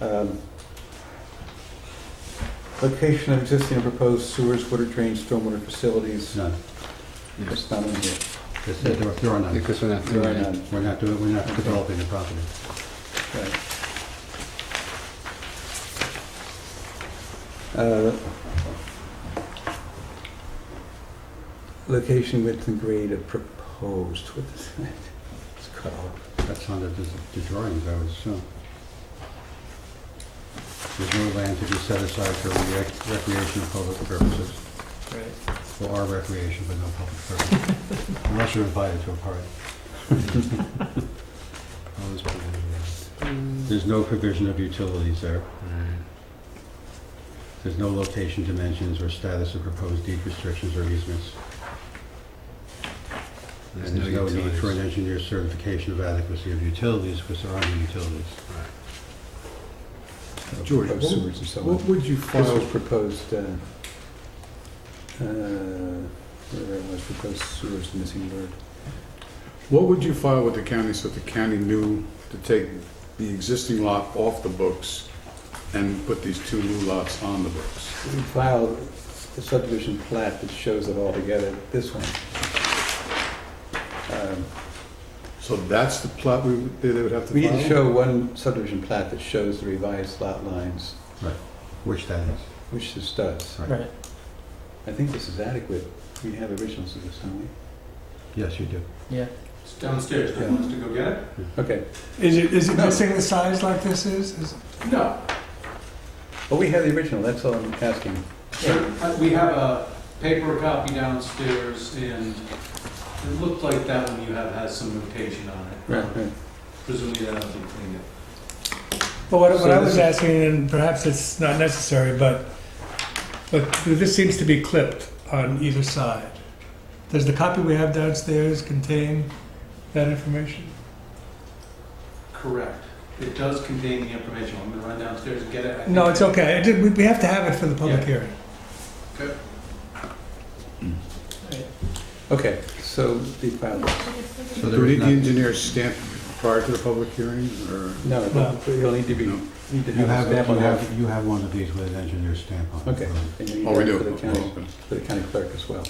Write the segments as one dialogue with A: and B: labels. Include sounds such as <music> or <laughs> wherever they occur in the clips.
A: Um, Location of existing and proposed sewers, water drains, stormwater facilities,
B: None.
A: it's not in here.
B: Just that there are- there are none.
C: Because we're not
A: There are
C: doing that.
A: none.
B: We're not doing, we're not developing the property.
A: Right. Uh, Location, width, and grade of proposed, what is that? It's cut off.
B: That's on the the drawings, I would assume. There's no land to be set aside for rec- recreational public purposes,
D: Right.
B: for our recreation, but no public purpose. <laughs> Unless you're invited to a party. Always be invited.
D: Mm.
B: There's no provision of utilities there. There's no location dimensions or status of proposed deed restrictions or easements. And
C: There's no
B: there's no need for an
C: utilities.
B: engineer's certification of adequacy of utilities, because there are no utilities.
E: George,
A: Proposed
E: what-
A: Sewers and so
E: What
A: on.
E: would you
A: This
E: file,
A: was proposed, uh, uh, whatever it was, proposed sewers, missing word.
E: what would you file with the county so the county knew to take the existing lot off the books and put these two new lots on the books?
A: We filed the subdivision plat that shows it all together, this one. Um,
E: So that's the plot we, would- they they would have to
A: We need
E: file?
A: to show one subdivision plat that shows the revised lot lines,
B: Which that is.
A: which this does.
D: Right.
A: I think this is adequate. We have originals of this, don't we?
B: Yes, you do.
D: Yeah.
F: It's downstairs, do you want us to go get it?
A: Okay.
G: Is it, is it
A: No.
G: missing the size like this is? Is-
F: No,
A: Well, Oh, we have the original, that's all I'm asking.
F: Uh, we have a paper copy downstairs, and it looked like that one you have has some notation on it. Presumably that hasn't been cleaned up.
G: But what what
A: So
G: I
A: this
G: was
A: is-
G: asking, and perhaps it's not necessary, but, but this seems to be clipped on either side. Does the copy we have downstairs contain that information?
F: Correct. It does contain the information. I'm gonna run downstairs and get it. I
G: No,
F: think-
G: it's okay. It did- we- We have to have it for the public
F: Yeah.
G: hearing. Mm.
A: Okay, so the filed,
B: So
E: Do
B: there is
E: we need the
B: not,
E: engineer's stamp prior to the public hearing, or?
A: no,
G: No.
A: you'll need to be,
E: No.
A: need to
B: you
A: have
B: have,
A: a stamp
B: you
A: on that.
B: have, you have one of these with an engineer's stamp on it.
A: Okay. And you need
E: Oh, we
A: that
E: do?
A: For the
E: Oh,
A: county,
E: okay.
A: for the county clerk as well.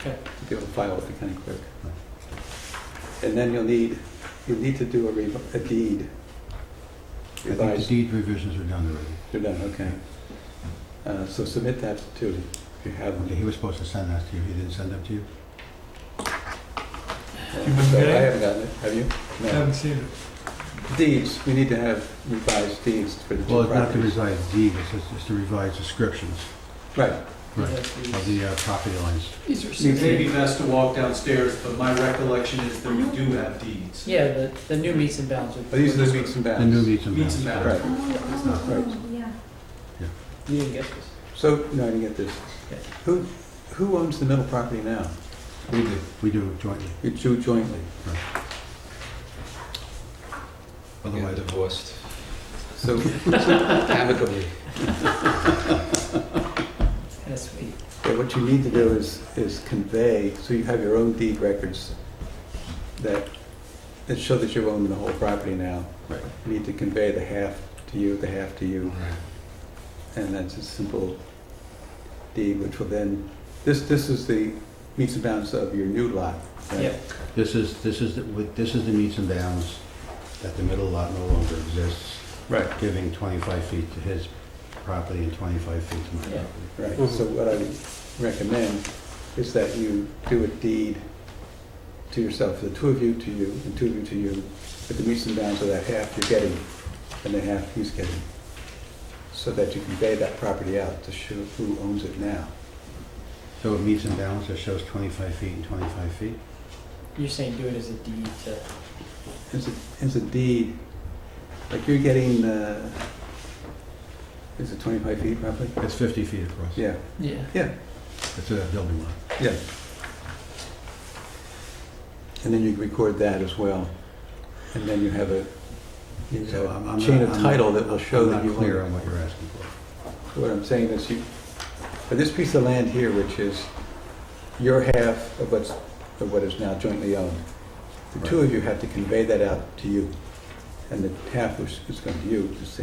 D: Okay.
A: To be able to file with the county clerk. And then you'll need, you'll need to do a rev- a deed.
B: I think the
A: Revised,
B: deed revisions are done already.
A: you're done, okay. Uh, So submit that too, if you have
B: Okay,
A: them.
B: He was supposed to send that to you, he didn't send that to you?
A: So I
G: getting it?
A: haven't gotten it, have you?
G: I
A: No.
G: haven't seen it.
A: Deeds, we need to have revised deeds for the
B: Well,
A: two
B: it's not the
A: properties.
B: revised deed, it's just- it's the revised descriptions
A: Right,
B: of the uh, property lines.
D: These are
F: It may be best to walk downstairs, but my recollection is that we do have deeds.
D: Yeah, the, the new meets and bounds.
A: But these are the meets and
B: The new
A: bounds.
B: meets and
F: Meets and
B: bounds.
F: bounds.
A: Right,
D: You didn't get this.
A: so, no, I didn't get this.
D: Okay.
A: Who, who owns the middle property now?
B: We do, we do jointly,
A: You two jointly.
B: otherwise it
C: divorced
A: So
C: amicably.
D: That's sweet.
A: Yeah, what you need to do is, is convey, so you have your own deed records that, that show that you own the whole property now.
B: Right.
A: You need to convey the half to you, the half to you, and that's a simple deed, which will then, this, this is the meets and bounds of your new lot. right?
D: Yeah.
B: This is, this is, the- with- this is the meets and bounds that the middle lot no longer exists,
A: Right.
B: giving 25 feet to his property and 25 feet to my
D: Yeah.
B: property.
A: Right, so what I would recommend is that you do a deed to yourself, the two of you to you, and two of you to you, but the meets and bounds of that half you're getting, and the half he's getting, so that you convey that property out to show who owns it now.
B: So it meets and bounds that shows 25 feet and 25 feet?
D: You're saying do it as a deed to,
A: It's a, it's a deed, like you're getting, uh, is it 25 feet roughly?
B: It's 50 feet across.
A: Yeah,
D: yeah.
A: yeah,
B: It's a building lot.
A: yeah. And then you record that as well, and then you have a, you have
B: So I'm- I'm
A: a chain
B: not-
A: of
B: I'm not-
A: title that will show that you
B: I'm not clear
A: own.
B: on what you're asking for.
A: What I'm saying is you, for this piece of land here, which is your half of what's, of what is now jointly owned, the two of you have to convey that out to you, and the half which is going to you is the